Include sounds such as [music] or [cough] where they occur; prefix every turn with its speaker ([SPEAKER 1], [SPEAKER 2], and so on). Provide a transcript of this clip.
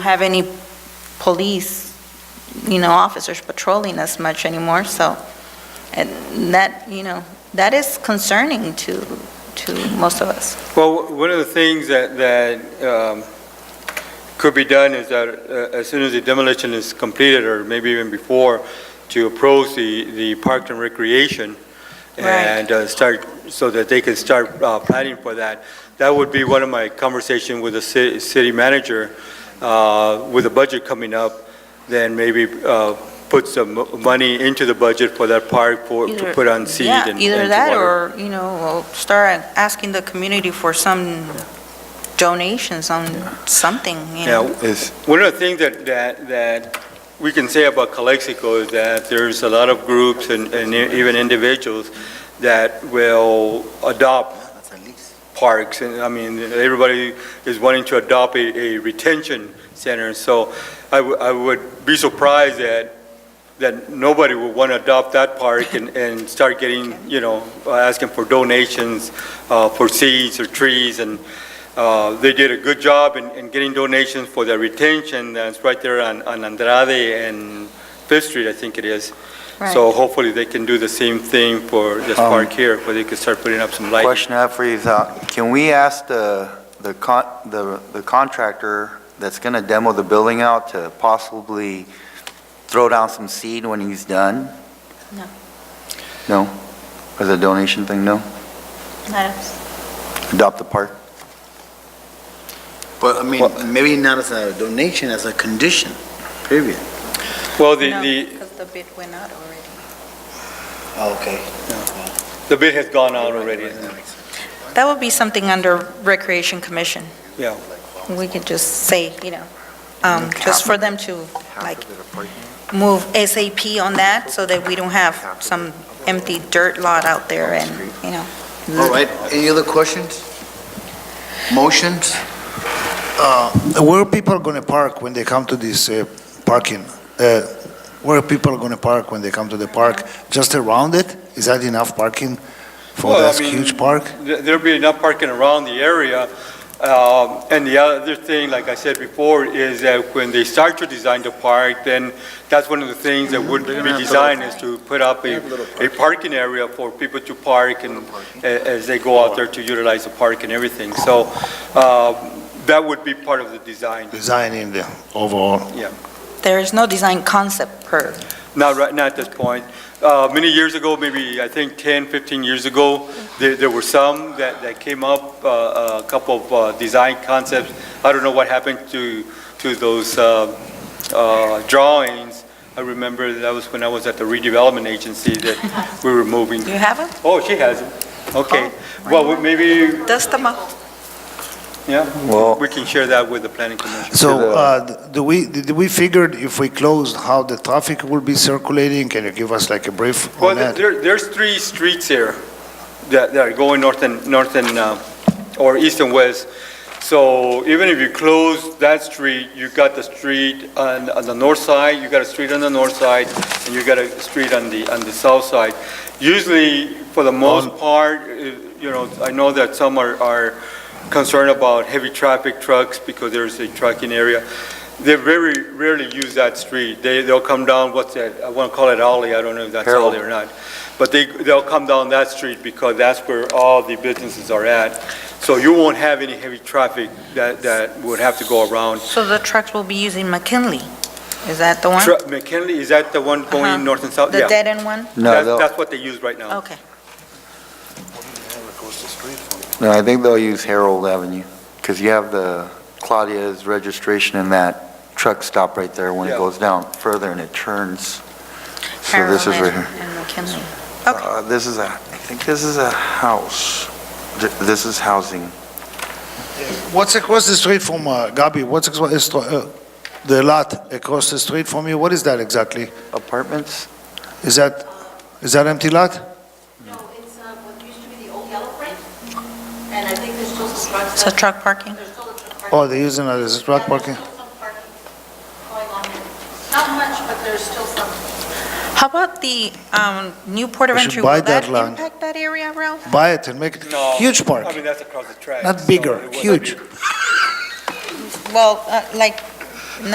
[SPEAKER 1] have any police, you know, officers patrolling as much anymore, so, and that, you know, that is concerning to, to most of us.
[SPEAKER 2] Well, one of the things that, that um, could be done is that uh, as soon as the demolition is completed, or maybe even before, to approach the, the Parks and Recreation
[SPEAKER 1] Right.
[SPEAKER 2] and uh, start, so that they can start uh, planning for that. That would be one of my conversation with the ci- city manager, uh, with the budget coming up, then maybe uh, put some mo- money into the budget for that park for, to
[SPEAKER 1] Either-
[SPEAKER 2] put on seed
[SPEAKER 1] Yeah,
[SPEAKER 2] and and
[SPEAKER 1] Either
[SPEAKER 2] to
[SPEAKER 1] that,
[SPEAKER 2] water.
[SPEAKER 1] or, you know, we'll start asking the community for some donations on something, you know.
[SPEAKER 2] Yeah, One of the things that, that, that we can say about Calexico is that there's a lot of groups and, and e, even individuals that will adopt parks, and, I mean, everybody is wanting to adopt a, a retention center, so I, wou- I would be surprised that, that nobody would want to adopt that park and, and start getting, you know, asking for donations, uh, for seeds or trees, and, uh, They did a good job in, in getting donations for their retention, that's right there on, on Andrade and Fifth Street, I think it is. So
[SPEAKER 1] Right.
[SPEAKER 2] hopefully they can do the same thing for this
[SPEAKER 3] Um,
[SPEAKER 2] park here, where they could start putting up some lighting.
[SPEAKER 3] Question I have for you is, uh, can we ask the, the con, the the contractor that's gonna demo the building out to possibly throw down some seed when he's done?
[SPEAKER 1] No.
[SPEAKER 3] No? As a donation thing, no?
[SPEAKER 1] That's-
[SPEAKER 3] Adopt the park?
[SPEAKER 4] But I mean, maybe not as a donation, as a condition, period.
[SPEAKER 2] Well, the,
[SPEAKER 1] no,
[SPEAKER 2] the,
[SPEAKER 1] 'cause the bid went out already.
[SPEAKER 4] Okay.
[SPEAKER 2] the bid has gone out already.
[SPEAKER 1] That would be something under Recreation Commission.
[SPEAKER 2] Yeah. Mm-hmm.
[SPEAKER 1] We could just say, you know, um, just for them to, like, move SAP on that so that we don't have some empty dirt lot out there and, you know.
[SPEAKER 4] All right, any other questions? Motions?
[SPEAKER 5] Uh, Where people going to park when they come to this uh, parking? Uh, Where people going to park when they come to the park? Just around it? Is that enough parking for
[SPEAKER 2] Well, I
[SPEAKER 5] that
[SPEAKER 2] mean,
[SPEAKER 5] huge park?
[SPEAKER 2] There- There'll be enough parking around the area. Um, And the other thing, like I said before, is that when they start to design the park, then that's one of the things that would
[SPEAKER 4] They're
[SPEAKER 2] be
[SPEAKER 4] gonna have to-
[SPEAKER 2] designed is to put up a,
[SPEAKER 4] Have a little
[SPEAKER 2] a parking area for people to park and, a- as they go out there to utilize the park and everything. So uh, that would be part of the design.
[SPEAKER 5] Design in the overall.
[SPEAKER 1] There is no design concept per,
[SPEAKER 2] Not right, not at this point. Uh, Many years ago, maybe, I think 10, 15 years ago, there there were some that that came up, uh, a couple of uh, design concepts. I don't know what happened to, to those uh, uh, drawings. I remember that was when I was at the redevelopment agency that we were
[SPEAKER 1] [laughs]
[SPEAKER 2] moving.
[SPEAKER 1] do you have it?
[SPEAKER 2] Oh, she has it. Okay. Well, we- maybe,
[SPEAKER 1] Dust them up.
[SPEAKER 2] yeah, we can share that with the planning commission.
[SPEAKER 5] So
[SPEAKER 3] To the-
[SPEAKER 5] uh, do we, did we figured if we closed, how the traffic will be circulating? Can you give us like a brief
[SPEAKER 2] Well,
[SPEAKER 5] on that?
[SPEAKER 2] there, there's three streets here that, that are going north and, north and, uh, or east and west. So even if you close that street, you got the street on, on the north side, you got a street on the north side, and you got a street on the, on the south side. Usually, for the
[SPEAKER 3] Um,
[SPEAKER 2] most part, uh, you know, I know that some are, are concerned about heavy traffic trucks because there's a trucking area. They very rarely use that street. They, they'll come down, what's that, I want to call it alley, I don't know if that's
[SPEAKER 3] Harold.
[SPEAKER 2] alley or not. But they, they'll come down that street because that's where all the businesses are at. So you won't have any heavy traffic that, that would have to go around.
[SPEAKER 1] So the trucks will be using McKinley. Is that the one?
[SPEAKER 2] Tru- McKinley, is that the one
[SPEAKER 1] Uh-huh.
[SPEAKER 2] going north and south?
[SPEAKER 1] The
[SPEAKER 2] Yeah, Uh-huh.
[SPEAKER 1] dead end one?
[SPEAKER 3] No,
[SPEAKER 2] That's,
[SPEAKER 3] they'll-
[SPEAKER 2] that's what they use right now.
[SPEAKER 1] Okay.
[SPEAKER 3] no, I think they'll use Harold Avenue, because you have the Claudia's registration and that truck stop right there when
[SPEAKER 2] Yeah.
[SPEAKER 3] it goes down further and it turns. So
[SPEAKER 1] Parallel
[SPEAKER 3] this is right here.
[SPEAKER 1] And McKinley. Okay.
[SPEAKER 3] Uh, This is a, I think this is a house. Th- This is housing.
[SPEAKER 5] What's across the street from, uh, Gabi, what's across the str- uh, the lot across the street from you? What is that exactly?
[SPEAKER 3] Apartments?
[SPEAKER 5] Is that, is that empty lot?
[SPEAKER 6] No, it's uh, what used to be the old yellow brick, and I think there's still some trucks.
[SPEAKER 1] So truck parking?
[SPEAKER 6] There's still a truck parking.
[SPEAKER 5] Oh, they're using it as a truck parking?
[SPEAKER 6] Yeah, there's still some parking going on there. Not much, but there's still some.
[SPEAKER 1] How about the um, new port of
[SPEAKER 5] We should
[SPEAKER 1] entry?
[SPEAKER 5] buy
[SPEAKER 1] Will that
[SPEAKER 5] that land.
[SPEAKER 1] impact that area, Ralph?
[SPEAKER 5] buy it and make it
[SPEAKER 2] No, I
[SPEAKER 5] huge park,
[SPEAKER 2] mean, that's across the track.
[SPEAKER 5] not
[SPEAKER 2] so
[SPEAKER 5] bigger,
[SPEAKER 2] it would not be-
[SPEAKER 5] huge.
[SPEAKER 1] Well, uh, like